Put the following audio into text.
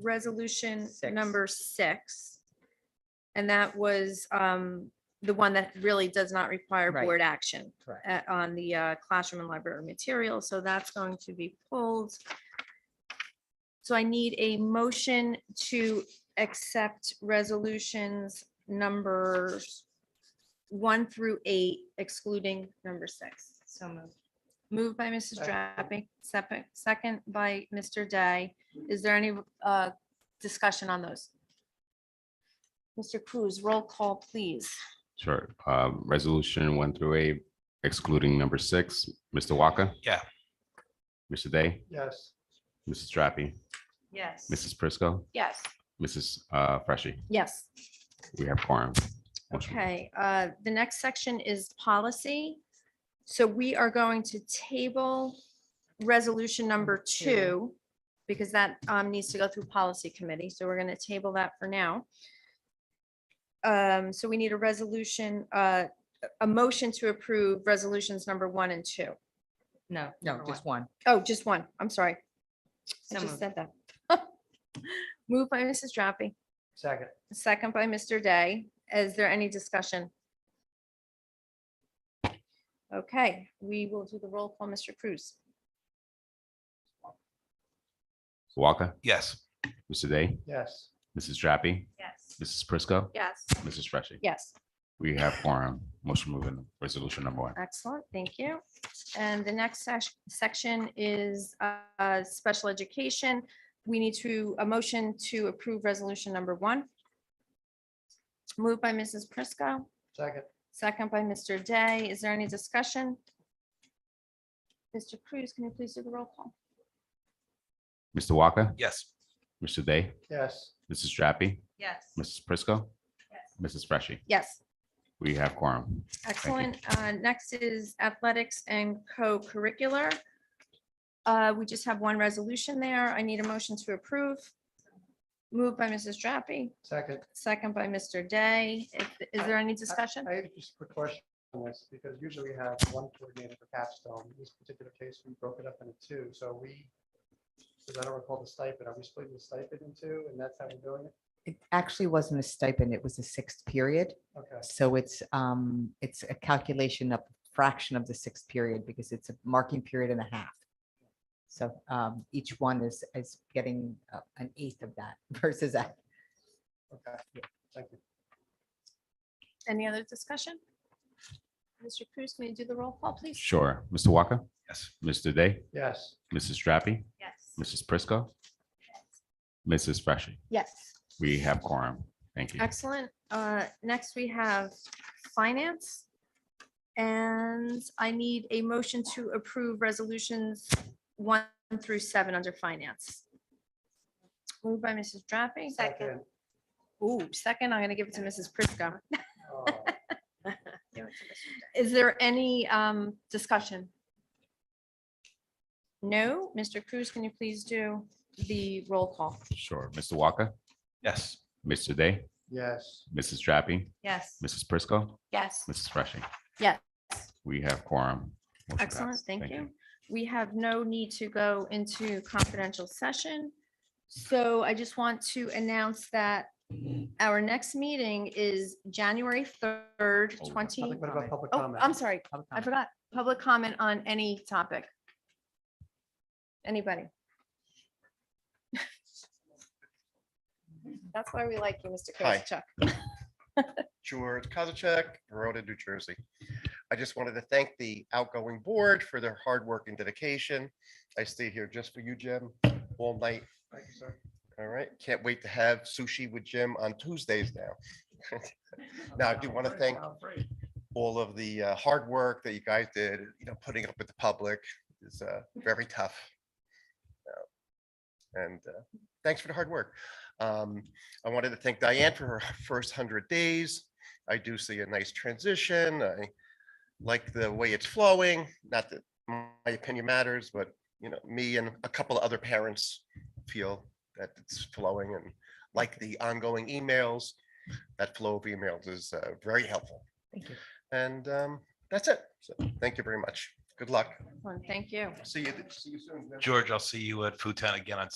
resolution Six. number six. And that was um, the one that really does not require Right. board action Correct. uh, on the uh, classroom and library material, so that's going to be pulled. So I need a motion to accept resolutions numbers one through eight excluding number six. So moved. Moved by Mrs. Drappi, second, second by Mr. Day. Is there any uh, discussion on those? Mr. Cruz, roll call, please. Sure. Um, Resolution one through eight excluding number six. Mr. Walker? Yeah. Mr. Day, yes, Mrs. Drappi, Yes. Mrs. Prisco, Yes. Mrs. uh, Freshy. Yes. We have quorum. Motion- Okay, uh, the next section is policy. So we are going to table resolution number Number two. two because that um, needs to go through policy committee. So we're going to table that for now. Um, So we need a resolution, uh, a motion to approve resolutions number one and two. No. No, number just one. Oh, just one. I'm sorry. I So just moved. said that. Moved by Mrs. Drappi, second, second by Mr. Day. Is there any discussion? Okay, we will do the roll call, Mr. Cruz. Walker, Yes. Mr. Day, yes, Mrs. Drappi, Yes. Mrs. Prisco, Yes. Mrs. Freshy. Yes, We have quorum. Motion moving, resolution number one. excellent, thank you. And the next sesh- section is uh, special education. We need to, a motion to approve resolution number one. Moved by Mrs. Prisco, second, second by Mr. Day. Is there any discussion? Mr. Cruz, can you please do the roll call? Mr. Walker, Yes. Mr. Day, yes, Mrs. Drappi, Yes. Mrs. Prisco, Mrs. Freshy. Yes. We have quorum. Excellent. Uh, Next is athletics and co-curricular. Uh, We just have one resolution there. I need a motion to approve. Moved by Mrs. Drappi, second. second by Mr. Day. If- Is there any discussion? I have just a quick question on this, because usually we have one coordinator for capstone. In this particular case, we broke it up into two, so we, because I don't recall the stipend, are we splitting the stipend in two, and that's how we're doing it? It actually wasn't a stipend. It was a sixth period. Okay, So it's, um, it's a calculation of fraction of the sixth period because it's a marking period and a half. So, um, each one is, is getting uh, an eighth of that versus that. okay, thank you. Any other discussion? Mr. Cruz, can you do the roll call, please? Sure. Mr. Walker, Yes. Mr. Day, Yes, Mrs. Drappi, Yes. Mrs. Prisco, Mrs. Freshy. Yes. We have quorum. Thank you. Excellent. Uh, Next, we have finance. And I need a motion to approve resolutions one through seven under finance. Moved by Mrs. Drappi. second. Ooh, second, I'm going to give it to Mrs. Prisco. Oh, Is there any um, discussion? No? Mr. Cruz, can you please do the roll call? Sure. Mr. Walker, Yes. Mr. Day, Yes, Mrs. Drappi, Yes. Mrs. Prisco, Yes. Mrs. Freshy. Yes. We have quorum. Motion passed. Excellent, thank you. We have no need to go into confidential session. So I just want to announce that our next meeting is January third, Oh, we have twenty. what about public Oh, comment? I'm sorry, Public I comment. forgot. Public comment on any topic. Anybody? That's why we like you, Mr. Hi. Kozak. George Kozaczek, Verona, New Jersey. I just wanted to thank the outgoing board for their hard work and dedication. I stayed here just for you, Jim, all night. Thank you, sir. All right. Can't wait to have sushi with Jim on Tuesdays now. Now, I do want to thank all of the uh, hard work that you guys did, you know, putting up with the public is uh, very tough. Uh, And uh, thanks for the hard work. Um, I wanted to thank Diane for her first hundred days. I do see a nice transition. I like the way it's flowing. Not that my opinion matters, but you know, me and a couple of other parents feel that it's flowing and like the ongoing emails. That flow of emails is uh, very helpful. Thank you. And um, that's it. So thank you very much. Good luck. Thank you. See you, see you soon. George, I'll see you at Foodtown again on